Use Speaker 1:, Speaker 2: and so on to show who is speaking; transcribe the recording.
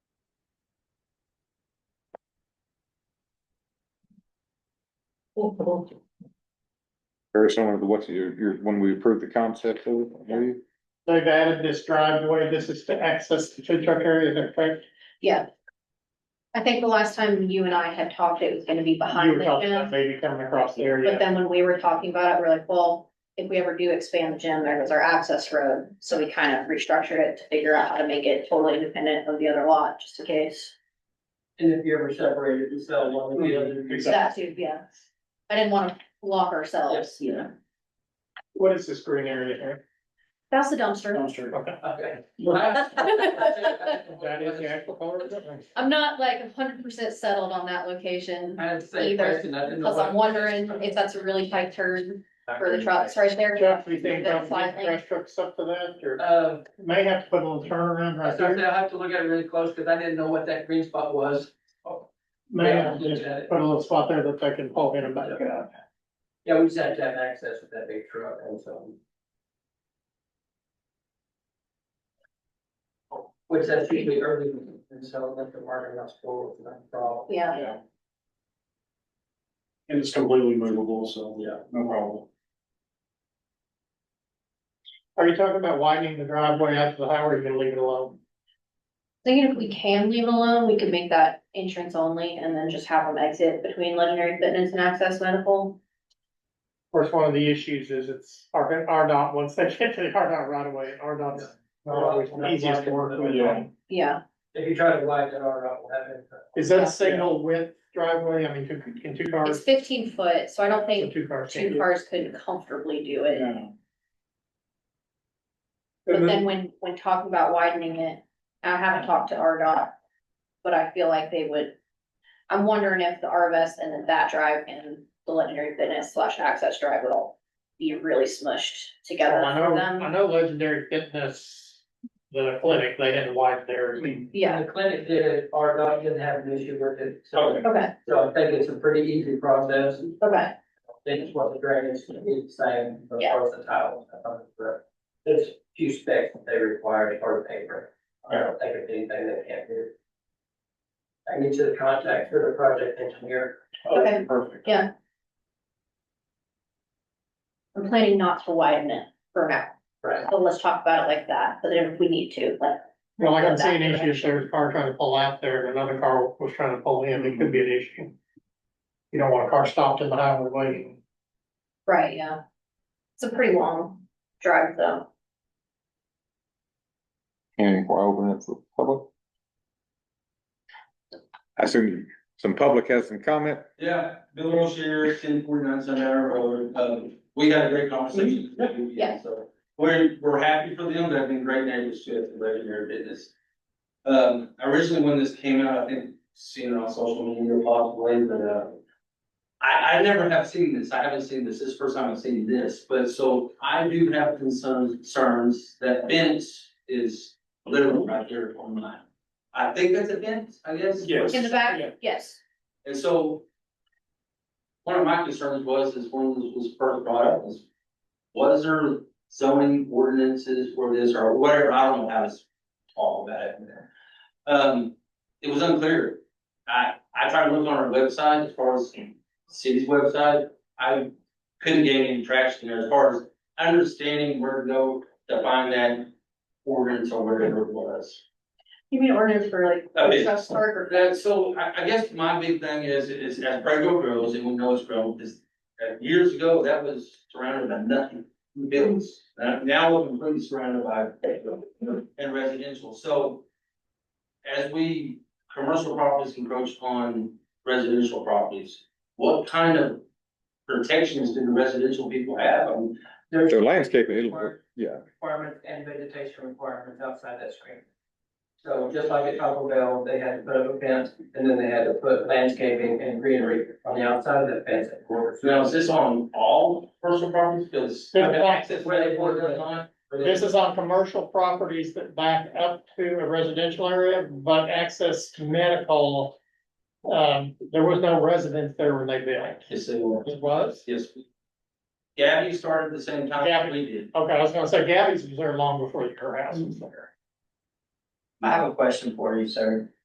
Speaker 1: Very similar to what you, you, when we approved the concept of, it, maybe?
Speaker 2: They've added this driveway, this is to access the food truck area, is that correct?
Speaker 3: Yeah. I think the last time you and I had talked, it was gonna be
Speaker 2: You
Speaker 3: behind
Speaker 2: were
Speaker 3: the
Speaker 2: talking about
Speaker 3: gym,
Speaker 2: Maybe coming across the
Speaker 3: but
Speaker 2: area.
Speaker 3: then when we were talking about it, we're like, well, if we ever do expand the gym, there goes our access road, so we kind of restructured it to figure out how to make it totally independent of the other lot, just in case.
Speaker 4: And if you ever separated and sell one of the other.
Speaker 2: Mhm.
Speaker 3: So that too, yeah. I didn't wanna lock ourselves, you know,
Speaker 2: What is this green area here?
Speaker 3: that's the dumpster.
Speaker 2: Dumpster. Okay.
Speaker 4: Okay.
Speaker 2: That is the actual color of it?
Speaker 3: I'm not like hundred percent settled on that location,
Speaker 4: I had the same
Speaker 3: Either,
Speaker 4: question, I didn't know.
Speaker 3: cause I'm wondering if that's a really tight turn for the trucks right there.
Speaker 2: Jeff, do you think
Speaker 3: That's
Speaker 2: about
Speaker 3: fine,
Speaker 2: the
Speaker 3: like-
Speaker 2: trash trucks up to that, or
Speaker 4: Um,
Speaker 2: may have to put a little turnaround
Speaker 4: I
Speaker 2: right
Speaker 4: said,
Speaker 2: there?
Speaker 4: I'll have to look at it really close, cause I didn't know what that green spot was.
Speaker 2: May
Speaker 4: Yeah,
Speaker 2: have
Speaker 4: I'll
Speaker 2: to
Speaker 4: look
Speaker 2: just
Speaker 4: at it.
Speaker 2: put a little spot there that they can pull in and back it up.
Speaker 4: Yeah, we just had to have access with that big truck and so. Which that's usually early, and so like the market must forward, not a problem.
Speaker 3: Yeah,
Speaker 5: And it's completely movable, so.
Speaker 4: Yeah.
Speaker 5: No problem.
Speaker 2: Are you talking about widening the driveway out to the highway, or you gonna leave it alone?
Speaker 3: thinking if we can leave it alone, we could make that entrance only and then just have them exit between legendary fitness and access medical.
Speaker 2: Of course, one of the issues is it's our, our dot, once they get to the our dot right away, our dot's not always the easiest to work with.
Speaker 5: Yeah.
Speaker 3: Yeah,
Speaker 4: If you try to widen it all out, we'll have it.
Speaker 2: Is that a signal width driveway? I mean, two- can two
Speaker 3: it's
Speaker 2: cars,
Speaker 3: fifteen foot, so I don't
Speaker 2: so
Speaker 3: think
Speaker 2: two cars can
Speaker 3: two cars could comfortably do it.
Speaker 5: Yeah.
Speaker 3: But then when, when talking about widening it, I haven't talked to RDOT, but I feel like they would. I'm wondering if the RVS and then that drive and the legendary fitness slash access drive would all be really smushed together
Speaker 2: Well, Oh, I
Speaker 3: for
Speaker 2: know, I
Speaker 3: them.
Speaker 2: know Legendary Fitness, the clinic, they had to widen their,
Speaker 3: Yeah,
Speaker 4: The clinic did it, our doc didn't have an issue with it, so,
Speaker 3: okay,
Speaker 4: so I think it's a pretty easy process.
Speaker 3: okay.
Speaker 4: They just want the drainage to be the same as
Speaker 3: Yeah.
Speaker 4: far as the tile. if I'm correct. There's a few specs that they require as part of paper. I don't think it's anything they can't do. I need to contact for the project engineer.
Speaker 2: Oh.
Speaker 3: Okay.
Speaker 5: Perfect.
Speaker 3: I'm planning not to widen it for now,
Speaker 4: Right.
Speaker 3: so Oh, let's talk about it like that, but then if we need to, like.
Speaker 2: well, I can see an issue if there's a car trying to pull out there and another car was trying to pull in, it could be an issue. You don't want a car stopped in the highway waiting.
Speaker 3: Right, yeah. It's a pretty long drive though.
Speaker 1: And why open it for public? I assume some public has some comment.
Speaker 6: Yeah, Bill O'Shea, ten forty-nine Sun Arrow Road, um, we had a great conversation.
Speaker 3: Yeah.
Speaker 6: So, we're, we're happy for them, they've been great neighbors to us, and legendary business. Um, originally when this came out, I think, seen it on social media possibly, but, uh, I, I never have seen this, I haven't seen this, this is the first time I've seen this, but so I do have concerns, concerns that fence is literally right there on mine. I think that's a fence, I guess. is what
Speaker 5: Yes.
Speaker 3: In the back, yes,
Speaker 6: and so. One of my concerns was, is one that was first brought up is, was there zoning ordinances for this or whatever, I don't know how to talk about it. Um, it was unclear. I, I tried to look on our website as far as city's website, I couldn't gain any traction there as far as understanding where to go to find that ordinance or whatever it was.
Speaker 3: you mean ordinance for like.
Speaker 6: A bit.
Speaker 3: truck park or-
Speaker 6: That, so I, I guess my big thing is, is as Prego grows, and we know it's grown, is uh, years ago, that was surrounded by nothing. Buildings, Uh, now we're completely surrounded by and residential, so as we, commercial properties encroach on residential properties, what kind of protections do the residential people have? I mean,
Speaker 4: There's
Speaker 1: So landscaping, it'll, yeah.
Speaker 4: requirements and vegetation requirements outside that screen. So just like at Taco Bell, they had to put up a fence and then they had to put landscaping and greenery on the outside of that fence at quarters.
Speaker 6: Now, is this on all personal properties, because
Speaker 2: Yeah.
Speaker 6: access where they border is on?
Speaker 2: This is on commercial properties that back up to a residential area, but access to medical. Um, there was no residence there when they built.
Speaker 6: Yes, they were.
Speaker 2: It was?
Speaker 6: Yes. Gabby started at the same time
Speaker 2: Gabby.
Speaker 6: we did.
Speaker 2: Okay, I was gonna say Gabby's was there long before your house was there.
Speaker 7: I have a question for you, sir.